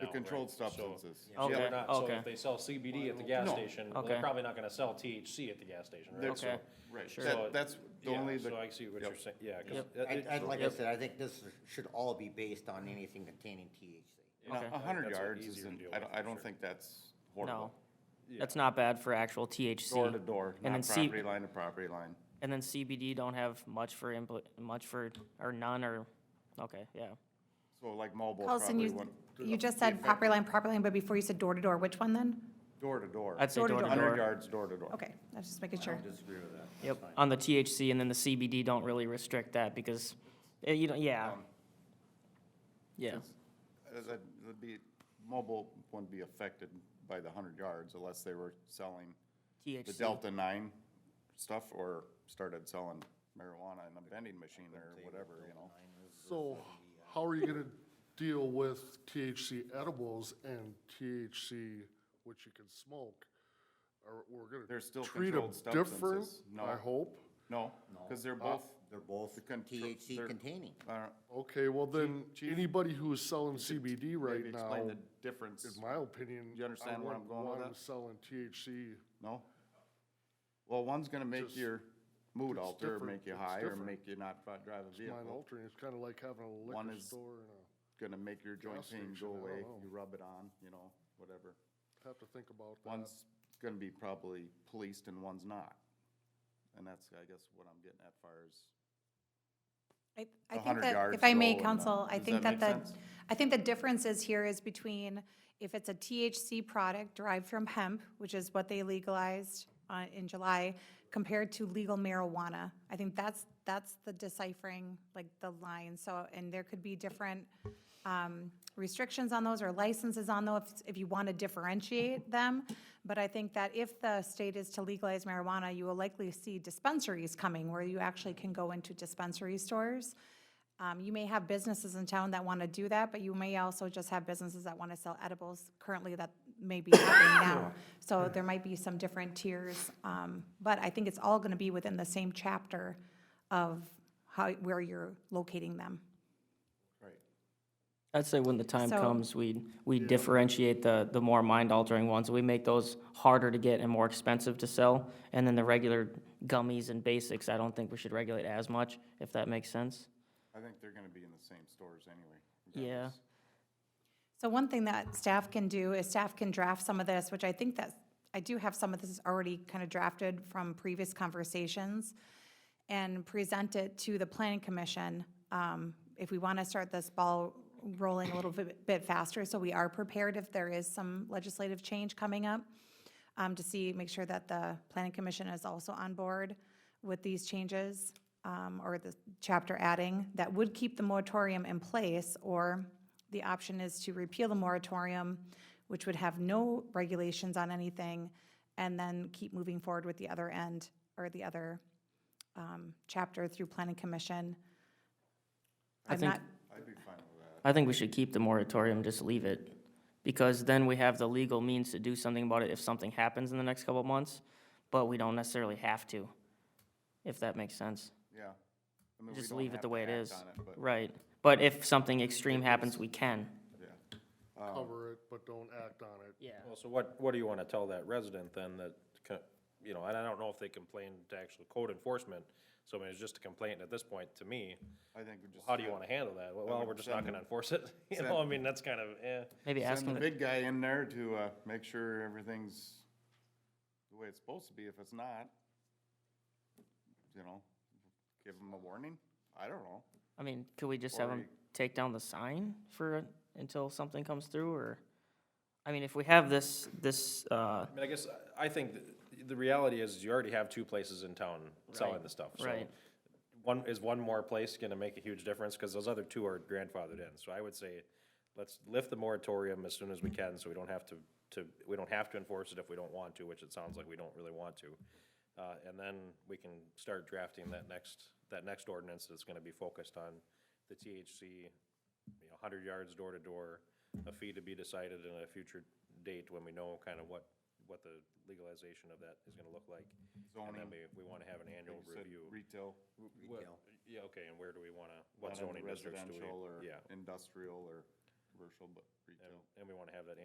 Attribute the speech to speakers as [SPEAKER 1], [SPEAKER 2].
[SPEAKER 1] controlled
[SPEAKER 2] right? So-
[SPEAKER 1] substances.
[SPEAKER 2] so we're
[SPEAKER 3] Okay,
[SPEAKER 2] not- So
[SPEAKER 3] okay.
[SPEAKER 2] if they sell CBD at the gas
[SPEAKER 1] No.
[SPEAKER 2] station, well, they're
[SPEAKER 3] Okay.
[SPEAKER 2] probably not gonna sell THC at the gas station, right?
[SPEAKER 1] That's-
[SPEAKER 3] Okay.
[SPEAKER 1] Right,
[SPEAKER 3] Sure.
[SPEAKER 2] So-
[SPEAKER 1] that, that's the
[SPEAKER 2] Yeah,
[SPEAKER 1] only,
[SPEAKER 2] So I
[SPEAKER 1] the-
[SPEAKER 2] see what
[SPEAKER 1] yep.
[SPEAKER 2] you're saying, yeah, cause.
[SPEAKER 3] Yep.
[SPEAKER 2] it-
[SPEAKER 4] I,
[SPEAKER 2] it-
[SPEAKER 4] I, like I
[SPEAKER 3] Yep.
[SPEAKER 4] said, I think this is- should all be based on anything containing THC.
[SPEAKER 2] yeah,
[SPEAKER 3] Okay.
[SPEAKER 1] a hundred
[SPEAKER 2] that's a
[SPEAKER 1] yards
[SPEAKER 2] easier
[SPEAKER 1] isn't,
[SPEAKER 2] deal
[SPEAKER 1] I
[SPEAKER 2] with,
[SPEAKER 1] don't,
[SPEAKER 2] for
[SPEAKER 1] I don't
[SPEAKER 2] sure.
[SPEAKER 1] think that's
[SPEAKER 3] No,
[SPEAKER 1] horrible.
[SPEAKER 3] that's not bad for actual THC.
[SPEAKER 1] Door to door,
[SPEAKER 3] And then
[SPEAKER 1] not
[SPEAKER 3] C,
[SPEAKER 1] property line to property line.
[SPEAKER 3] and then CBD don't have much for input, much for, or none, or, okay, yeah.
[SPEAKER 1] So like mobile
[SPEAKER 5] Carlson,
[SPEAKER 1] probably
[SPEAKER 5] you,
[SPEAKER 1] went
[SPEAKER 5] you just said property line, property line, but before you said door to door, which one then?
[SPEAKER 1] door to door.
[SPEAKER 3] I'd say
[SPEAKER 5] Door
[SPEAKER 3] door
[SPEAKER 5] to
[SPEAKER 3] to
[SPEAKER 5] door.
[SPEAKER 1] Hundred
[SPEAKER 3] door.
[SPEAKER 1] yards, door to door.
[SPEAKER 5] Okay, I was just making sure.
[SPEAKER 4] disagree with that.
[SPEAKER 3] Yep, on the THC, and then the CBD don't really restrict that because, eh, you don't, yeah.
[SPEAKER 1] Um,
[SPEAKER 3] Yeah,
[SPEAKER 1] Uh, that- That'd be, mobile wouldn't be affected by the hundred yards unless they were selling the
[SPEAKER 3] THC,
[SPEAKER 1] Delta nine stuff or started selling marijuana in a vending machine or whatever, you know?
[SPEAKER 6] So how are you gonna deal with THC edibles and THC, which you can smoke? Are, we're gonna
[SPEAKER 1] They're still
[SPEAKER 6] treat 'em
[SPEAKER 1] controlled substances.
[SPEAKER 6] different,
[SPEAKER 1] No.
[SPEAKER 6] I hope. Ah,
[SPEAKER 1] No, because they're both,
[SPEAKER 4] They're both
[SPEAKER 1] The contr-
[SPEAKER 4] THC
[SPEAKER 1] they're-
[SPEAKER 4] containing.
[SPEAKER 1] uh,
[SPEAKER 6] Okay, well then, anybody who is selling CBD
[SPEAKER 1] maybe
[SPEAKER 6] right now,
[SPEAKER 1] explain the
[SPEAKER 6] in
[SPEAKER 1] difference.
[SPEAKER 6] my opinion.
[SPEAKER 1] You understand
[SPEAKER 6] I
[SPEAKER 1] where I'm
[SPEAKER 6] wouldn't
[SPEAKER 1] going with
[SPEAKER 6] want
[SPEAKER 1] that?
[SPEAKER 6] 'em Selling THC,
[SPEAKER 1] No? Well, one's gonna make
[SPEAKER 6] Just-
[SPEAKER 1] your mood
[SPEAKER 6] it's
[SPEAKER 1] alter,
[SPEAKER 6] different.
[SPEAKER 1] make you
[SPEAKER 6] It's
[SPEAKER 1] high, or
[SPEAKER 6] different.
[SPEAKER 1] make you not fi- drive a
[SPEAKER 6] mind
[SPEAKER 1] vehicle.
[SPEAKER 6] altering, it's kinda like having a
[SPEAKER 1] One
[SPEAKER 6] liquor
[SPEAKER 1] is-
[SPEAKER 6] store and a,
[SPEAKER 1] Gonna make your joint
[SPEAKER 6] Gas
[SPEAKER 1] pain
[SPEAKER 6] station,
[SPEAKER 1] go
[SPEAKER 6] I don't
[SPEAKER 1] away,
[SPEAKER 6] know.
[SPEAKER 1] you rub it on, you know, whatever.
[SPEAKER 6] have to think about that.
[SPEAKER 1] One's gonna be probably policed and one's not. And that's, I guess, what I'm getting at far as,
[SPEAKER 5] I
[SPEAKER 1] A
[SPEAKER 5] I think
[SPEAKER 1] hundred
[SPEAKER 5] that,
[SPEAKER 1] yards
[SPEAKER 5] if I
[SPEAKER 1] low
[SPEAKER 5] may,
[SPEAKER 1] and, uh,
[SPEAKER 5] counsel, I
[SPEAKER 1] does
[SPEAKER 5] think
[SPEAKER 1] that
[SPEAKER 5] that the,
[SPEAKER 1] make sense?
[SPEAKER 5] I think the difference is here is between if it's a THC product derived from hemp, which is what they legalized uh, in July, compared to legal marijuana. I think that's, that's the deciphering, like the line, so, and there could be different um, restrictions on those or licenses on those if- if you want to differentiate them. But I think that if the state is to legalize marijuana, you will likely see dispensaries coming where you actually can go into dispensary stores. Um, You may have businesses in town that want to do that, but you may also just have businesses that want to sell edibles currently that may be happening now. So there might be some different tiers, um, but I think it's all going to be within the same chapter of how, where you're locating them.
[SPEAKER 3] I'd say when the time
[SPEAKER 5] So-
[SPEAKER 3] comes, we, we differentiate the, the more mind-altering ones, we make those harder to get and more expensive to sell, and then the regular gummies and basics, I don't think we should regulate as much, if that makes sense.
[SPEAKER 1] I think they're gonna be in the same stores anyway.
[SPEAKER 3] Yeah.
[SPEAKER 1] regardless.
[SPEAKER 5] So one thing that staff can do is staff can draft some of this, which I think that, I do have some of this already kind of drafted from previous conversations, and present it to the planning commission, um, if we want to start this ball rolling a little bit bit faster, so we are prepared if there is some legislative change coming up, um, to see, make sure that the planning commission is also on board with these changes, um, or the chapter adding, that would keep the moratorium in place, or the option is to repeal the moratorium, which would have no regulations on anything, and then keep moving forward with the other end, or the other, um, chapter through planning commission.
[SPEAKER 3] I
[SPEAKER 5] I'm
[SPEAKER 3] think-
[SPEAKER 5] not,
[SPEAKER 1] I'd be fine with that.
[SPEAKER 3] I think we should keep the moratorium, just leave it, because then we have the legal means to do something about it if something happens in the next couple of months, but we don't necessarily have to, if that makes sense.
[SPEAKER 1] Yeah. I mean, we
[SPEAKER 3] Just
[SPEAKER 1] don't
[SPEAKER 3] leave
[SPEAKER 1] have
[SPEAKER 3] it the
[SPEAKER 1] to
[SPEAKER 3] way it
[SPEAKER 1] act
[SPEAKER 3] is.
[SPEAKER 1] on it, but,
[SPEAKER 3] Right, but if something extreme happens, we can.
[SPEAKER 1] yeah. Oh.
[SPEAKER 6] Cover it, but don't act on it.
[SPEAKER 3] Yeah.
[SPEAKER 2] Well, so what, what do you wanna tell that resident then that, co- you know, and I don't know if they complained to actual code enforcement, so I mean, it's just a complaint at this point to me.
[SPEAKER 1] I think we just.
[SPEAKER 2] How do you wanna handle that? Well, Well, we're just not gonna enforce it, you know, I mean, that's kind of, eh.
[SPEAKER 3] Maybe ask
[SPEAKER 1] Send
[SPEAKER 3] them,
[SPEAKER 1] the
[SPEAKER 3] to-
[SPEAKER 1] big guy in there to, uh, make sure everything's the way it's supposed to be. If it's not, you know, give them a warning. I don't know.
[SPEAKER 3] I mean, could we just have them
[SPEAKER 1] Or-
[SPEAKER 3] take down the sign for, until something comes through, or? I mean, if we have this, this, uh,
[SPEAKER 2] I mean, I guess, I- I think th- the reality is you already have two places in town selling
[SPEAKER 3] Right,
[SPEAKER 2] the stuff, so.
[SPEAKER 3] right.
[SPEAKER 2] One, is one more place gonna make a huge difference, cause those other two are grandfathered in, so I would say, let's lift the moratorium as soon as we can, so we don't have to, to, we don't have to enforce it if we don't want to, which it sounds like we don't really want to. Uh, and then we can start drafting that next, that next ordinance that's gonna be focused on the THC, you know, hundred yards door to door, a fee to be decided in a future date when we know kind of what, what the legalization of that is gonna look like. And then
[SPEAKER 1] Zoning.
[SPEAKER 2] we, we wanna have an annual
[SPEAKER 1] You said
[SPEAKER 2] review.
[SPEAKER 1] Retail.
[SPEAKER 2] What- Yeah, okay, and where do we wanna,
[SPEAKER 1] not
[SPEAKER 2] what
[SPEAKER 1] in the
[SPEAKER 2] zoning districts do we?
[SPEAKER 1] Residential or
[SPEAKER 2] Yeah,
[SPEAKER 1] industrial or commercial, but retail.
[SPEAKER 2] and we wanna have that